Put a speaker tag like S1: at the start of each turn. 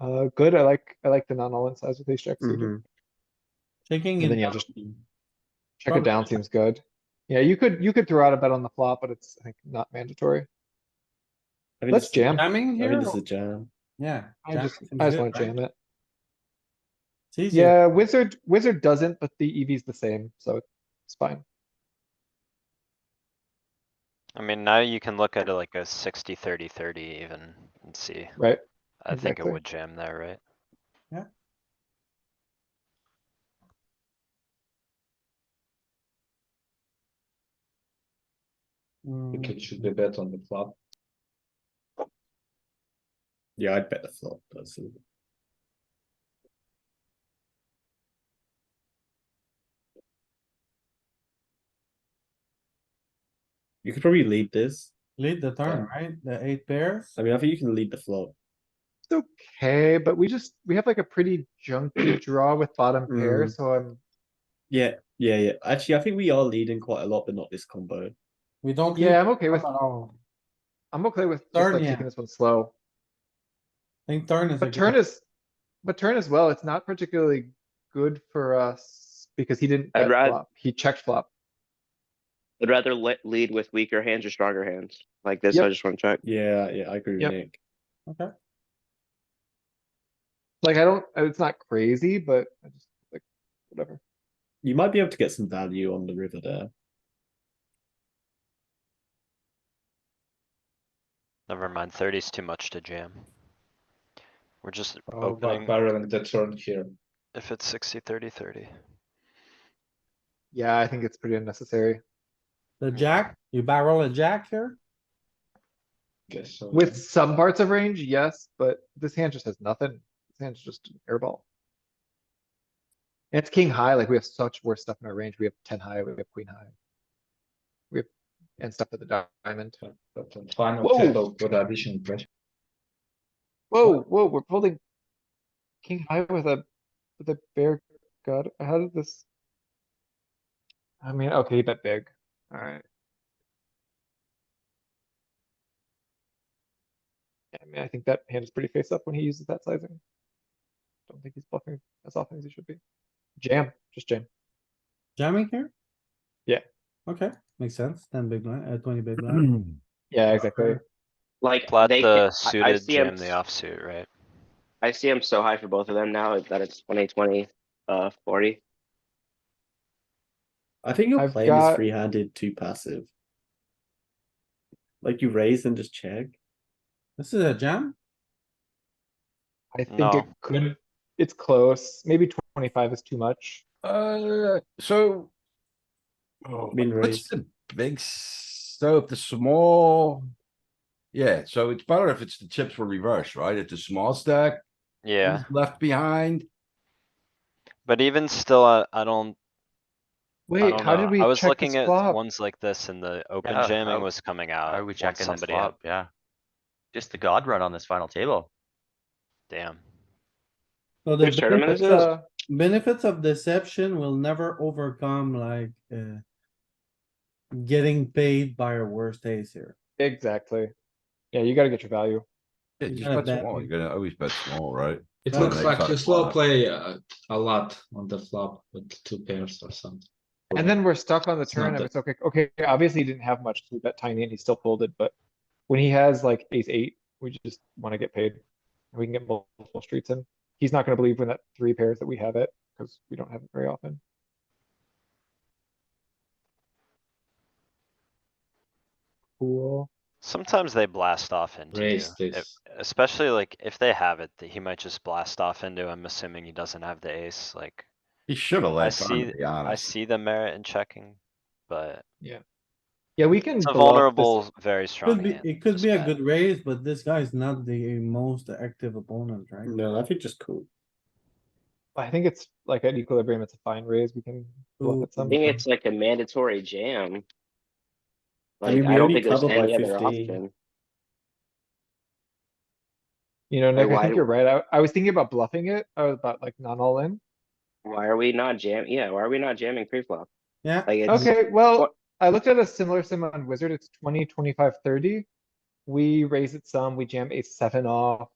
S1: Uh, good, I like, I like the non-all-in size with ace jack
S2: Mm-hmm.
S1: suited.
S3: Mhm.
S4: Checking
S1: And
S4: it.
S1: then, yeah,
S4: down.
S1: just Check it down seems good. Yeah, you could, you could throw out a bet on the flop, but it's, I think, not mandatory.
S3: I mean,
S1: Let's
S3: this is-
S1: jam.
S4: Jamming
S3: I
S4: here,
S3: mean, this is a jam.
S4: yeah.
S1: I
S4: jamming
S1: just,
S4: seems
S1: I just
S4: good,
S1: wanna
S4: right?
S1: jam it.
S4: It's easier.
S1: Yeah, wizard, wizard doesn't, but the EV's the same, so it's fine.
S5: I mean, now you can look at it like a 60, 30, 30 even and see.
S1: Right,
S5: I think it
S1: exactly.
S5: would jam there, right?
S4: Mm,
S2: think it should be bet on the flop.
S3: Yeah, I'd bet the flop personally. You could probably lead this.
S4: Lead the turn, right? The eight pairs.
S3: I mean, I think you can lead the flop.
S1: it's okay, but we just, we have like a pretty junky draw with bottom pair,
S2: Mm-hmm.
S3: Mm.
S1: so I'm,
S3: Yeah, yeah, yeah. Actually, I think we are leading quite a lot, but not this combo.
S4: We don't. lead
S1: yeah, I'm okay
S4: the
S1: with,
S4: turn at all.
S1: I'm okay with just
S4: Turn,
S1: like
S4: yeah.
S1: taking this one slow.
S4: I think turn is. a
S1: But
S4: good-
S1: turn is, but turn as well, it's not particularly good for us because he didn't
S6: I'd
S1: bet
S6: rather-
S1: flop, he checked flop.
S6: I'd rather le- lead with weaker hands or stronger hands. Like this,
S1: Yep.
S6: I just want to check.
S3: Yeah, yeah, I agree with
S1: Yep.
S3: Nick.
S4: Okay,
S1: Like, I don't, it's not crazy, but I just, like, whatever.
S3: You might be able to get some value on the river there.
S5: Never mind, thirty's too much to jam. We're just
S2: Oh,
S5: opening,
S2: but barreling the turn here.
S5: if it's 60, 30, 30.
S1: Yeah, I think it's pretty unnecessary.
S4: the jack, you barrel a jack here?
S2: Guess so.
S1: With some parts of range, yes, but this hand just has nothing. This hand's just an airball. And it's king high, like we have such worse stuff in our range. We have ten high, we have queen high. We have, and stuff at the diamond.
S2: But on final
S1: Whoa.
S2: table, good addition pressure.
S1: Whoa, whoa, we're holding king high with a, with a bear god. How did this? I mean, okay, he bet big. Alright. I mean, I think that hand is pretty face up when he uses that sizing. Don't think he's bluffing as often as he should be. Jam, just jam.
S4: Jamming here?
S1: Yeah.
S4: Okay, makes sense. Ten big blind, uh, twenty big blind.
S1: Yeah, exactly.
S6: Like
S5: Flat
S6: they, ca-
S5: the
S6: I, I
S5: suited,
S6: see him.
S5: jam the offsuit, right?
S6: I see him so high for both of them now that it's 20, 20, uh, 40.
S3: I think your
S1: I've
S3: plane
S1: got-
S3: is free-handed too passive. Like you raise and just check.
S4: This is a jam?
S1: I think it
S5: No.
S1: could, it's close. Maybe twenty-five is too much.
S7: Uh, so. Oh,
S3: Min
S7: what's
S3: raise.
S7: the big, s- so if the small. Yeah, so it's better if it's the chips were reversed, right? If the small stack.
S5: Yeah,
S7: is Left behind,
S5: but even still, I, I don't, I
S1: Wait,
S5: don't
S1: how did we
S5: know. I was
S1: check
S5: looking
S1: this
S5: at
S1: flop?
S5: ones like this and the open
S8: Yeah,
S5: jamming
S8: how-
S5: was coming out.
S8: Are we
S5: once
S8: checking this
S5: somebody had-
S8: flop? Yeah. Just the god run on this final table.
S5: Damn.
S4: So the
S6: Which tournament
S4: benefits
S6: is this?
S4: of- Benefits of deception will never overcome like, uh. Getting paid by our worst days here.
S1: Exactly. Yeah, you gotta get your value.
S7: yeah,
S4: You
S7: just
S4: gotta
S7: bet
S4: bet
S7: small,
S4: big.
S7: you're gonna always bet small, right?
S2: It
S7: Yeah,
S2: looks
S7: they
S2: like
S7: cut
S2: you slow
S7: flop.
S2: play uh, a lot on the flop with two pairs or something.
S1: And then we're stuck on the
S2: It's not
S1: turn and
S2: that-
S1: it's okay, okay, obviously he didn't have much, he bet tiny and he still folded, but when he has like ace eight, we just wanna get paid. and We can get multiple streets in. He's not gonna believe when that three pairs that we have it, cuz we don't have it very often. Cool.
S5: Sometimes they blast off into you,
S2: Raise
S5: if-
S2: this.
S5: especially like if they have it, that he might just blast off into, I'm assuming he doesn't have the ace, like.
S7: He should have left
S5: see-
S7: on, to be
S5: I
S7: honest.
S5: see the merit in checking, but
S1: Yeah, we can.
S5: it's a
S1: bluff this-
S5: vulnerable, very strong
S4: Could be,
S5: hand.
S4: it could
S5: this
S4: be a
S5: guy.
S4: good raise, but this guy's not the most active opponent, right?
S3: No, I think just cool.
S1: I think it's like at equilibrium, it's a fine raise, we can
S4: Ooh.
S1: bluff at
S6: I
S1: some.
S6: think
S3: Mm-hmm.
S6: it's like a mandatory jam.
S3: I
S6: Like,
S3: mean, we
S6: I don't
S3: only
S6: think there's
S3: cover by
S6: any other
S3: 15.
S6: option.
S1: You know, Nick, I
S6: why
S1: think
S6: do-
S1: you're right, I, I was thinking about bluffing it, I was about like not all in.
S6: Why are we not jam? Yeah, why are we not jamming pre-flop?
S4: Yeah,
S6: Like it's
S1: Okay, well,
S6: what-
S1: I looked at a similar sim on wizard, it's 20, 25, 30. We raise it some, we jam a seven off,